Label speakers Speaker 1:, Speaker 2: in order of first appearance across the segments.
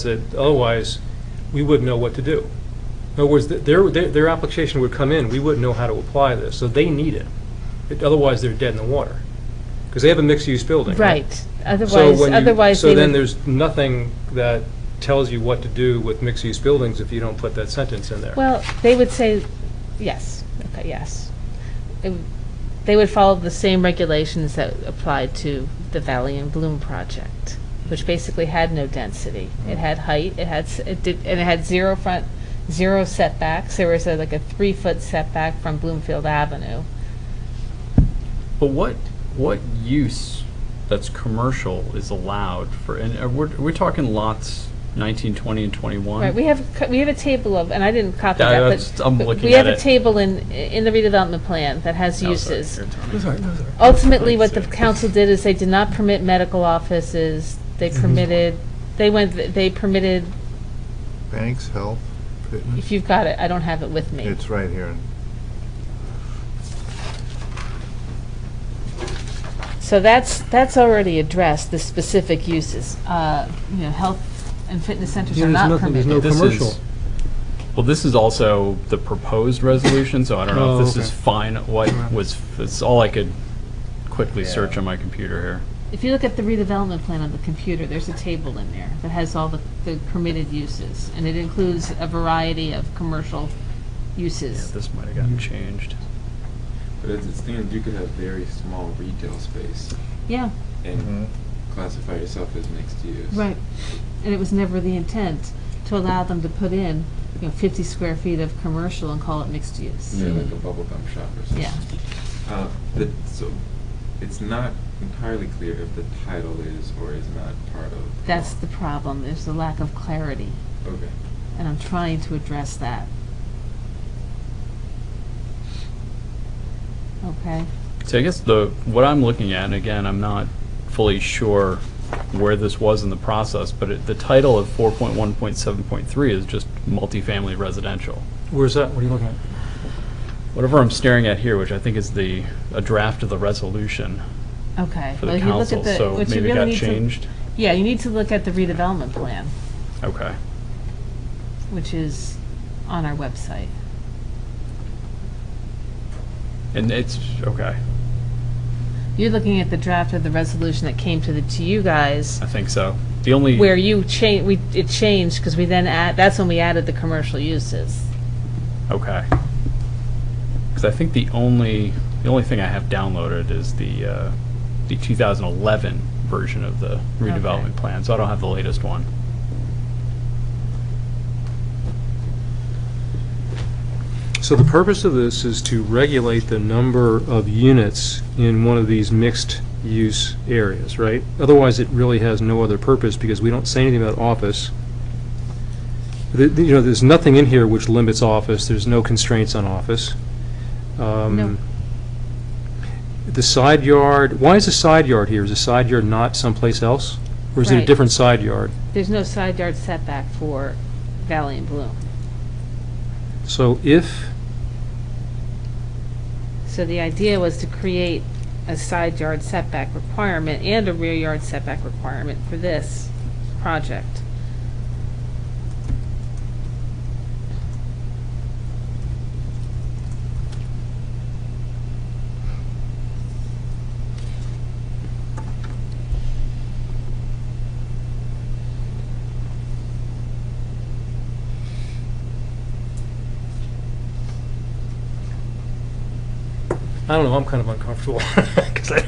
Speaker 1: said, otherwise, we wouldn't know what to do. In other words, th- their, their, their application would come in, we wouldn't know how to apply this, so they need it. It- Otherwise, they're dead in the water, because they have a mixed-use building, right?
Speaker 2: Right,
Speaker 1: So
Speaker 2: otherwise,
Speaker 1: when you-
Speaker 2: otherwise
Speaker 1: So
Speaker 2: they
Speaker 1: then
Speaker 2: would,
Speaker 1: there's nothing that tells you what to do with mixed-use buildings if you don't put that sentence in there.
Speaker 2: well, they would say, yes, okay, yes. It w- They would follow the same regulations that applied to the Valley and Bloom project, which basically had no density. It had height, it had, s- it did, and it had zero front, zero setbacks. There was a- like a three-foot setback from Bloomfield Avenue.
Speaker 3: But what, what use that's commercial is allowed for, and uh, we're, we're talking lots 19, 20, and 21?
Speaker 2: Right, we have, c- we have a table of, and I didn't copy
Speaker 3: Yeah,
Speaker 2: that,
Speaker 3: that's-
Speaker 2: but.
Speaker 3: I'm
Speaker 2: but
Speaker 3: looking
Speaker 2: We have
Speaker 3: at
Speaker 2: a
Speaker 3: it.
Speaker 2: table in, in the redevelopment plan that has
Speaker 3: No, sorry,
Speaker 2: uses.
Speaker 3: you're telling me.
Speaker 2: Ultimately, what the
Speaker 3: Right.
Speaker 2: council did is they did not permit medical offices, they
Speaker 3: Mm-hmm.
Speaker 2: permitted, they went, they permitted,
Speaker 4: Banks, health, fitness,
Speaker 2: if you've got it, I don't have it with me.
Speaker 4: it's right here.
Speaker 2: So that's, that's already addressed, the specific uses. Uh, You know, health and fitness centers
Speaker 1: Yeah,
Speaker 2: are
Speaker 1: there's
Speaker 2: not
Speaker 1: nothing- there's
Speaker 2: permitted.
Speaker 1: no
Speaker 3: This is-
Speaker 1: commercial.
Speaker 3: Well, this is also the proposed resolution, so I don't know
Speaker 1: Oh,
Speaker 3: if this
Speaker 1: okay.
Speaker 3: is fine, what was, it's all I could quickly
Speaker 5: Yeah.
Speaker 3: search on my computer here.
Speaker 2: If you look at the redevelopment plan on the computer, there's a table in there that has all the, the permitted uses, and it includes a variety of commercial
Speaker 3: Yeah,
Speaker 2: uses.
Speaker 3: this might have gotten changed.
Speaker 5: But it's, it's things you could have very small retail space
Speaker 2: Yeah,
Speaker 5: and classify yourself as mixed use.
Speaker 2: Right, and it was never the intent to allow them to put in, you know, fifty square feet of commercial and call it mixed use.
Speaker 5: Yeah, like a bubble gum shop or something.
Speaker 2: Yeah,
Speaker 5: Uh, the, so it's not entirely clear if the title is or is not part of.
Speaker 2: that's the problem, there's the lack of clarity,
Speaker 5: Okay.
Speaker 2: and I'm trying to address that. Okay,
Speaker 3: So I guess the, what I'm looking at, and again, I'm not fully sure where this was in the process, but it- the title of 4.1.7.3 is just multifamily residential.
Speaker 1: Where's that, what are you looking at?
Speaker 3: Whatever I'm staring at here, which I think is the, a draft of the resolution
Speaker 2: okay.
Speaker 3: for
Speaker 2: Well,
Speaker 3: the
Speaker 2: if you look
Speaker 3: council,
Speaker 2: at the
Speaker 3: so
Speaker 2: what you
Speaker 3: maybe
Speaker 2: really
Speaker 3: it got
Speaker 2: need to-
Speaker 3: changed?
Speaker 2: Yeah, you need to look at the redevelopment plan,
Speaker 3: Okay.
Speaker 2: which is on our website.
Speaker 3: And it's, okay,
Speaker 2: You're looking at the draft of the resolution that came to the, to you guys
Speaker 3: I think so. The only.
Speaker 2: Where you change, we, it changed, because we then add, that's when we added the commercial uses.
Speaker 3: Okay. Because I think the only, the only thing I have downloaded is the, uh, the 2011 version of the redevelopment plan, so I don't have the latest one.
Speaker 1: So the purpose of this is to regulate the number of units in one of these mixed-use areas, right? Otherwise, it really has no other purpose, because we don't say anything about office. The- the- You know, there's nothing in here which limits office, there's no constraints on office. Um,
Speaker 2: No.
Speaker 1: The side yard, why is the side yard here? Is the side yard not someplace else? Or is it a
Speaker 2: Right.
Speaker 1: different side yard?
Speaker 2: There's no side yard setback for Valley and Bloom.
Speaker 1: So if,
Speaker 2: So the idea was to create a side yard setback requirement and a rear yard setback requirement for this project.
Speaker 1: I don't know, I'm kind of uncomfortable, 'cause I-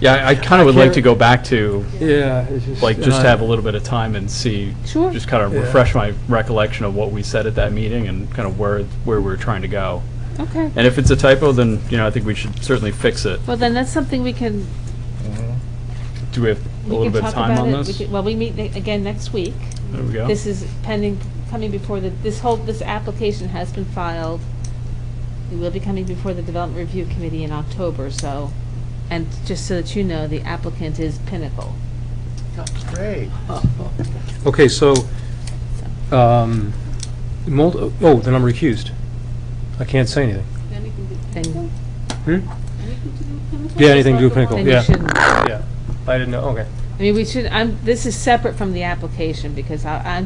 Speaker 3: Yeah, I- I kind
Speaker 1: I
Speaker 3: of would like
Speaker 1: can't-
Speaker 3: to go back to,
Speaker 1: yeah, it's just... uh,
Speaker 3: like,
Speaker 1: and
Speaker 3: just
Speaker 1: I-
Speaker 3: to have a little bit of time and see,
Speaker 2: Sure.
Speaker 3: just kind of
Speaker 1: Yeah.
Speaker 3: refresh my recollection of what we said at that meeting and kind of where, where we were trying to go.
Speaker 2: Okay.
Speaker 3: And if it's a typo, then, you know, I think we should certainly fix it.
Speaker 2: Well, then that's something we can,
Speaker 3: Do we have a
Speaker 2: we
Speaker 3: little
Speaker 2: can
Speaker 3: bit of
Speaker 2: talk
Speaker 3: time
Speaker 2: about
Speaker 3: on
Speaker 2: it. We
Speaker 3: this?
Speaker 2: could- Well, we meet ne- again next week.
Speaker 3: There we go.
Speaker 2: This is pending, coming before the, this whole, this application has been filed. It will be coming before the Development Review Committee in October, so, and just so that you know, the applicant is Pinnacle.
Speaker 4: Great.
Speaker 1: Okay, so, um, mul- oh, then I'm recused. I can't say anything.
Speaker 2: Then
Speaker 1: Hmm? Yeah, anything to do with Pinnacle,
Speaker 2: then you
Speaker 1: yeah,
Speaker 2: shouldn't. I
Speaker 1: yeah. I didn't know, okay.
Speaker 2: mean, we should, I'm, this is separate from the application, because I, I'm